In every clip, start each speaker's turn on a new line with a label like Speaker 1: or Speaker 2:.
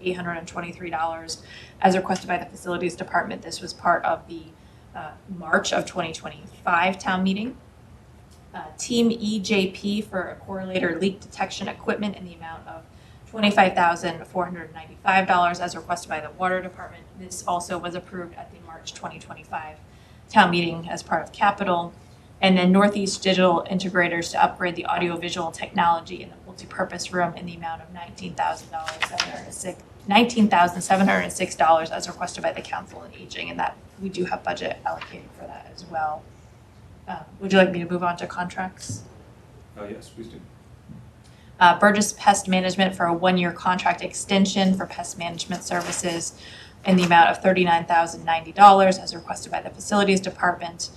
Speaker 1: eight hundred and twenty-three dollars. As requested by the facilities department, this was part of the uh, March of twenty twenty-five town meeting. Uh, Team EJP for a correlator leak detection equipment in the amount of twenty-five thousand four hundred and ninety-five dollars as requested by the water department. This also was approved at the March twenty twenty-five town meeting as part of capital. And then Northeast Digital Integrators to upgrade the audiovisual technology in the multipurpose room in the amount of nineteen thousand dollars, seven hundred and six, nineteen thousand seven hundred and six dollars as requested by the Council on Aging, and that, we do have budget allocated for that as well. Uh, would you like me to move on to contracts?
Speaker 2: Uh, yes, please do.
Speaker 1: uh, Burgess Pest Management for a one-year contract extension for pest management services in the amount of thirty-nine thousand ninety dollars as requested by the Facilities Department.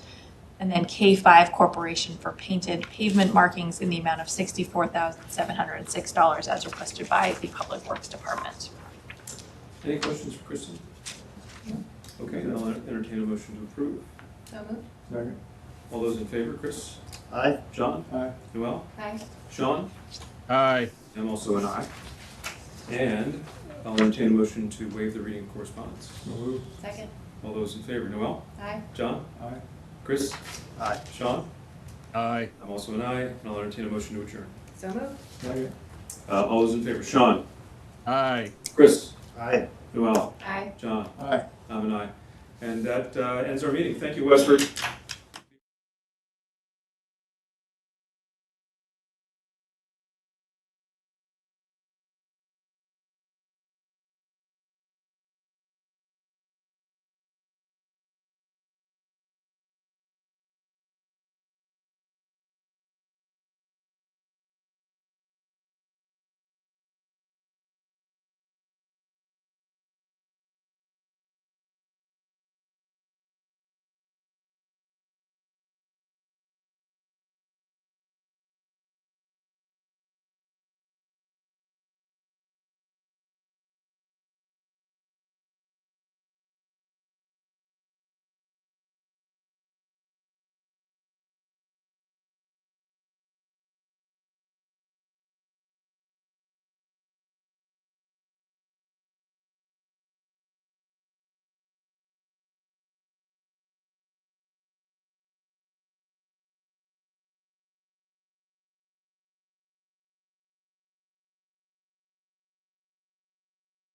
Speaker 1: And then K five Corporation for painted pavement markings in the amount of sixty-four thousand seven hundred and six dollars as requested by the Public Works Department.
Speaker 2: Any questions for Kristen? Okay, then I'll entertain a motion to approve.
Speaker 3: So moved.
Speaker 4: Second.
Speaker 2: All those in favor, Chris?
Speaker 4: Aye.
Speaker 2: John?
Speaker 4: Aye.
Speaker 2: Noel?
Speaker 3: Aye.
Speaker 2: Sean?
Speaker 5: Aye.
Speaker 2: I'm also an aye. And I'll entertain a motion to waive the reading of correspondence.
Speaker 4: So moved.
Speaker 3: Second.
Speaker 2: All those in favor, Noel?
Speaker 3: Aye.
Speaker 2: John?
Speaker 4: Aye.
Speaker 2: Chris?
Speaker 4: Aye.
Speaker 2: Sean?
Speaker 5: Aye.
Speaker 2: I'm also an aye, and I'll entertain a motion to adjourn.
Speaker 3: So moved.
Speaker 4: Second.
Speaker 2: Uh, all those in favor, Sean?
Speaker 5: Aye.
Speaker 2: Chris?
Speaker 4: Aye.
Speaker 2: Noel?
Speaker 3: Aye.
Speaker 2: John?
Speaker 4: Aye.
Speaker 2: I'm an aye. And that uh, ends our meeting. Thank you, Westford.